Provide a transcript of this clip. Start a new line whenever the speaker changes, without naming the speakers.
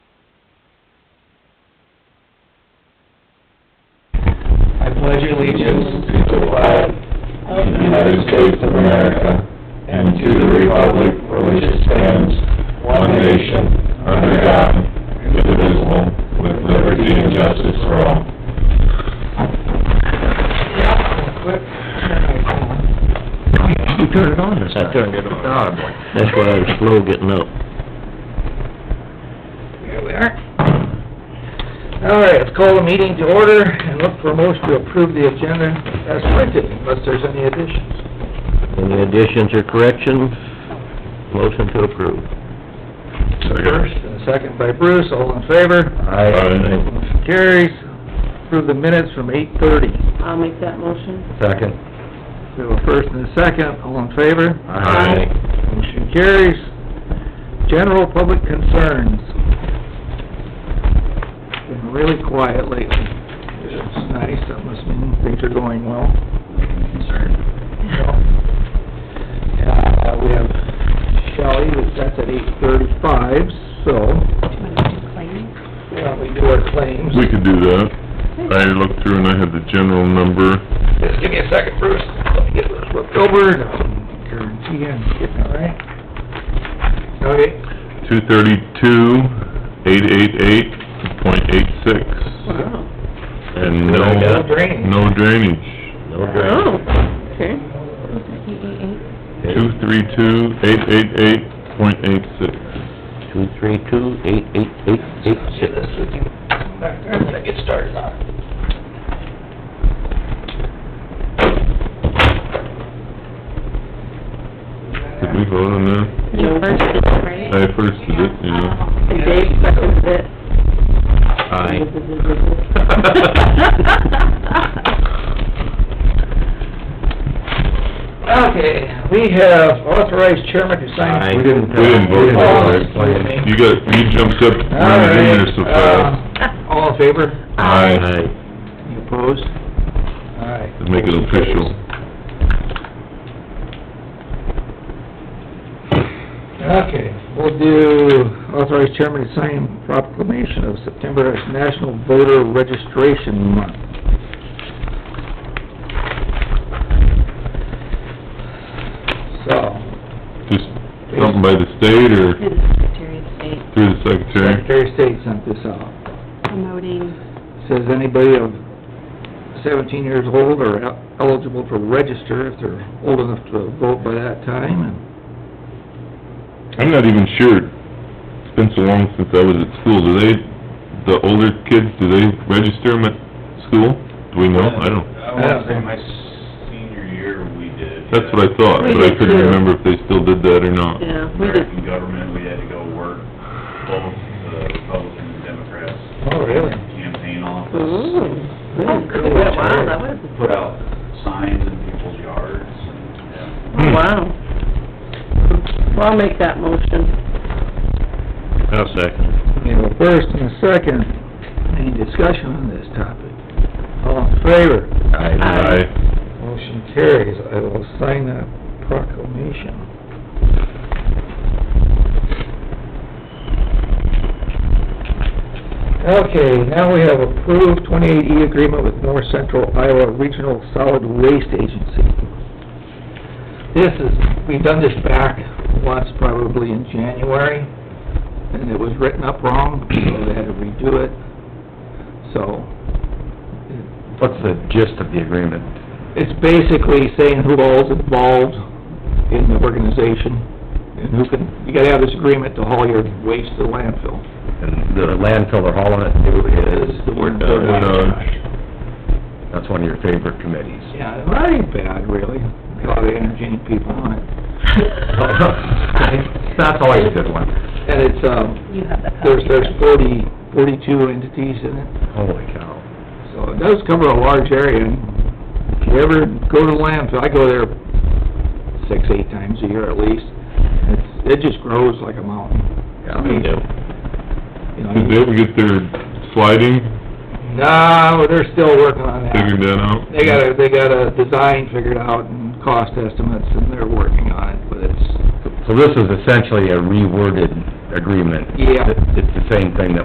United States of America and to the republic for which it stands, one nation, under God, indivisible, with liberty and justice for all.
You turned it on this time.
I turned it on.
Ah, boy.
That's why I was slow getting up.
Here we are. All right, let's call the meeting to order and look for a motion to approve the agenda as printed, unless there's any additions.
Any additions or corrections? Motion to approve.
First and a second by Bruce, all in favor?
Aye.
Motion Carries. Approve the minutes from eight thirty.
I'll make that motion.
Second.
We have a first and a second, all in favor?
Aye.
Motion carries. General public concerns. Been really quiet lately. It's nice, that must mean things are going well. Concerned. Uh, we have Shelley, that's at eight thirty-five, so why don't we do our claims.
We could do that. I looked through and I had the general number.
Just give me a second, Bruce. Let me get this looked over. Guarantee I'm getting it right. Okay.
Two thirty-two, eight eight eight, point eight six,
Wow.
and
Good
no,
idea.
Drainage.
no drainage.
No
Oh,
drainage.
okay.
Two three two, eight eight eight, point eight six.
Two, three, two, eight, eight, eight, eight, six.
When I get started on it.
Did we vote on that?
You first, right?
I first did it, yeah.
And Dave seconded it.
Okay, we have authorized chairman to sign.
We didn't-
We didn't vote
Oh,
on it.
excuse me.
You got, you jumped up,
All
running in there
right,
so fast.
uh, All in favor?
Aye,
Aye.
You opposed? All right.
Let's make it official.
Okay, we'll do authorized chairman to sign proclamation of September as National Voter Registration Month. So,
Just something by the state or
Through the Secretary of State
through the secretary?
Secretary of State sent this out.
promoting,
Says anybody of seventeen years old are el- eligible to register if they're old enough to vote by that time, and
I'm not even sure, it's been so long since I was at school, do they, the older kids, do they register them at school? Do we know? I don't,
I wanna say my senior year, we did.
that's what I thought, but I couldn't remember if they still did that or not.
Yeah, we did.
American government, we had to go work both the Republican and Democrats.
Oh, really?
Campaign office,
Ooh. Oh, cool. Wow, that was,
put out signs in people's yards and, yeah.
wow. Well, I'll make that motion.
I'll second.
we have a first and a second. Any discussion on this topic? All in favor?
Aye.
Motion carries. I will sign that proclamation. Okay, now we have approved 28E agreement with North Central Iowa Regional Solid Waste Agency. This is, we've done this back once, probably in January, and it was written up wrong, so they had to redo it. So,
What's the gist of the agreement?
it's basically saying who all's involved in the organization, and who can, you gotta have this agreement to haul your waste to landfill.
And the landfill they're hauling it to is...
The word-
Uh, Aye.
That's one of your favorite committees.
Yeah, not even bad, really, a lot of energy people on it.
That's always a good one.
And it's, um,
you have that
there's,
copy.
there's forty, forty-two entities in it,
Holy cow.
so it does cover a large area. And If you ever go to landfill, I go there six, eight times a year at least, it's, it just grows like a mountain.
Yeah, me too.
You know,
Did they
you-
ever get their sliding
No, they're still working on that.
figured that out?
They got a, they got a design figured out and cost estimates, and they're working on it, but it's,
So this is essentially a reworded agreement.
Yeah.
It- It's the same thing that